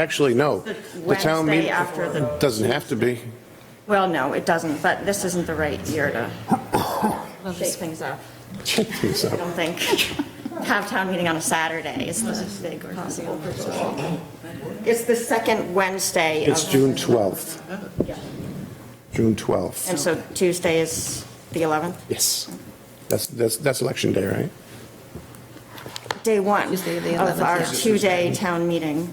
Actually, no. The town Wednesday meeting after the- Doesn't have to be. Well, no, it doesn't, but this isn't the right year to shake things up, It's I up. don't think. Have town meeting on a Saturday is the big possible. It's the second Wednesday It's of, June 12th. June 12th. and so Tuesday is the 11th, Yes. That's, that's, that's election day, right? day one Tuesday, the of 11th, our yeah. two-day town meeting.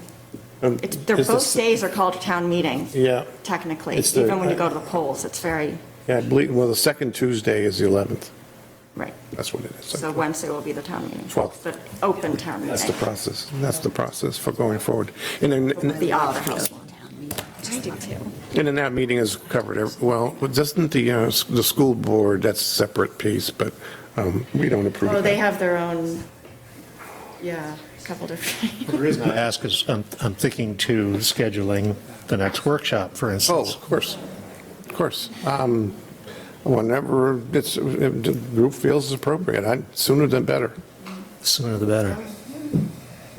Um, It's, they're is the both s- days are called town meeting, Yeah, technically, It's the- even when you go to the polls, it's very, yeah, I believe, well, the second Tuesday is the 11th. right. That's what it is. So Wednesday will be the town meeting. 12th. The open town meeting. That's the process. That's the process for going forward. And then, The Opera House. I do too. and then that meeting is covered, ev- well, doesn't the, uh, s- the school board, that's a separate piece, but um, we don't approve Oh, of they that. have their own, yeah, a couple different. The reason I ask is I'm, I'm thinking to scheduling the next workshop, for Oh, instance. of course, of course. Um, Whenever it's, if the group feels is appropriate, I, sooner than better. Sooner the better.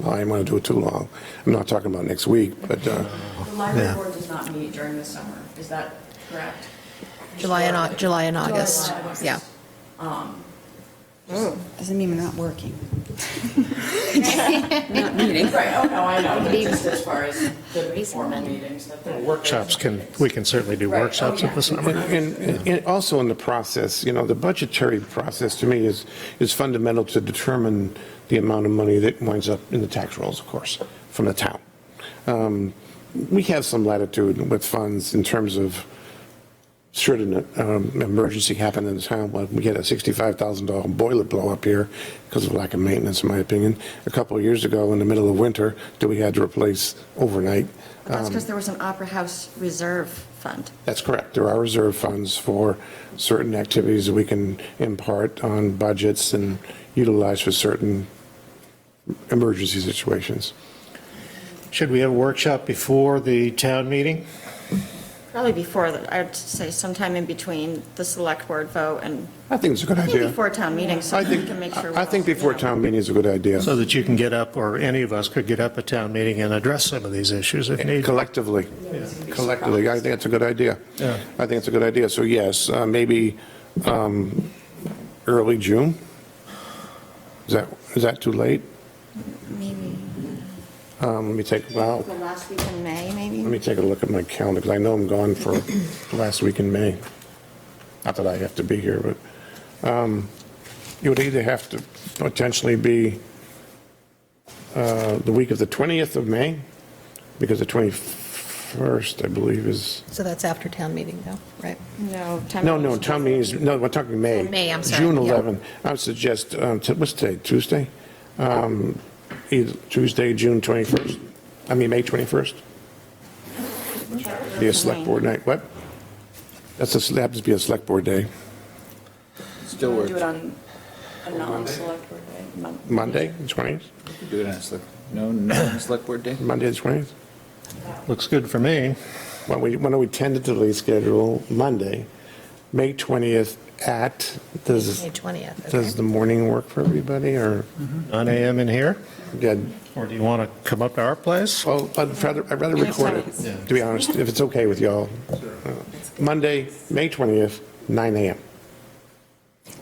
I didn't want to do it too long. I'm not talking about next week, but, uh, The library Yeah. board does not meet during the summer, is that correct? July and, Au- July and August, yeah. Doesn't mean we're not working. Not meeting. Right, oh, no, I know, but just as far as the informal meetings that. the- Workshops can, we can certainly do Right, oh, workshops in yeah. the summer. and, and- and also in the process, you know, the budgetary process to me is, is fundamental to determine the amount of money that winds up in the tax rolls, of course, from the town. Um, We have some latitude with funds in terms of, should an um, emergency happen in the town, like we had a $65,000 boiler blow up here because of lack of maintenance, in my opinion, a couple of years ago in the middle of winter that we had to replace overnight. That's Um, because there was an Opera House Reserve Fund. That's correct. There are reserve funds for certain activities that we can impart on budgets and utilize for certain emergency situations. Should we have a workshop before the town meeting? Probably before, the- I'd say sometime in between the select board vote and, I think it's a good I think idea. before town meeting, so I we think, can make sure. I think we're- before town meeting is a good idea, So that you can get up, or any of us could get up at town meeting and address some of these issues if need. collectively. Collectively, I think it's a good idea. Yeah. I think it's a good idea. So yes, uh, maybe um, early June? Is that, is that too late? Maybe Um, Let me take, wow. the last week in May, Let maybe? me take a look at my calendar, because I know I'm gone for the last week in May. Not that I have to be here, but um, you would either have to potentially be uh, the week of the 20th of May, because the 21st, I believe, is, So that's after town meeting though, right? No. town no, meeting's- no, town meeting is, no, we're talking May. May, I'm sorry, June yeah. 11. I would suggest, um, t- what's today, Tuesday? Um, Either Tuesday, June 21st, I mean, May 21st? Be a select board night, what? That's, a- that happens to be a select board day, Still Do works. it on a non-select board day, Mon- Monday, the 20th, Do it on a select, no, no, on a select board day? Monday, the 20th? Looks good for me. Why don't we, why don't we tentatively schedule Monday, May 20th at, does, May 20th, okay. does the morning work for everybody, or, 9 AM in here? yeah, Mm-hmm. Or do you want to come up to our place? Well, I'd rather, I'd rather record it, to be honest, if it's okay with y'all. Uh, Monday, May 20th, 9 AM.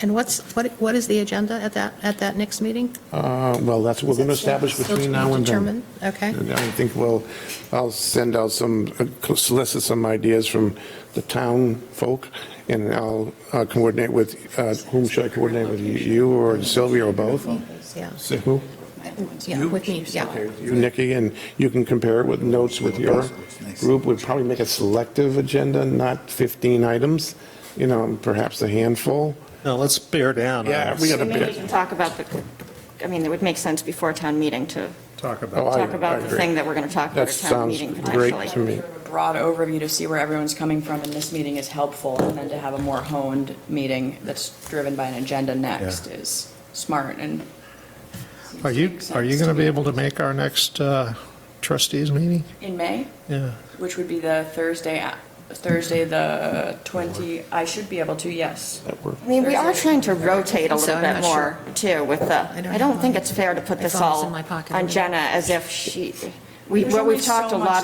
And what's, what, what is the agenda at that, at that next meeting? Uh, Well, that's what we're going to establish Still to be between now and then. determined? Okay. And I think we'll, I'll send out some, uh, solicit some ideas from the town folk, and I'll uh, coordinate with, uh, whom should I coordinate with, you or Sylvia or both? Yeah, Say who? yeah, with me, yeah. You, Nikki, and you can compare it with notes with your group, would probably make a selective agenda, not 15 items, you know, perhaps a handful. No, let's bear down. on Yeah, this. we got a Maybe we bit. can talk about the, I mean, it would make sense before town meeting to Talk about. Oh, I- talk I about the agree. thing that we're going to talk about That at town sounds meeting potentially. great to me. Sort of a broad overview to see where everyone's coming from in this meeting is helpful, and then to have a more honed meeting that's driven by an agenda next Yeah. is smart and. seems Are to you, make are you sense going to be me. able to make our next uh, trustees meeting? In May? Yeah. Which would be the Thursday, a- Thursday, the 20, I should be able to, yes. I mean, we are trying to rotate a So little I'm bit not more, too, with the, I don't I don't know. think it's fair to put My this phone was all in my pocket. on Jenna as if she, We, There's well, we've only talked so a much lot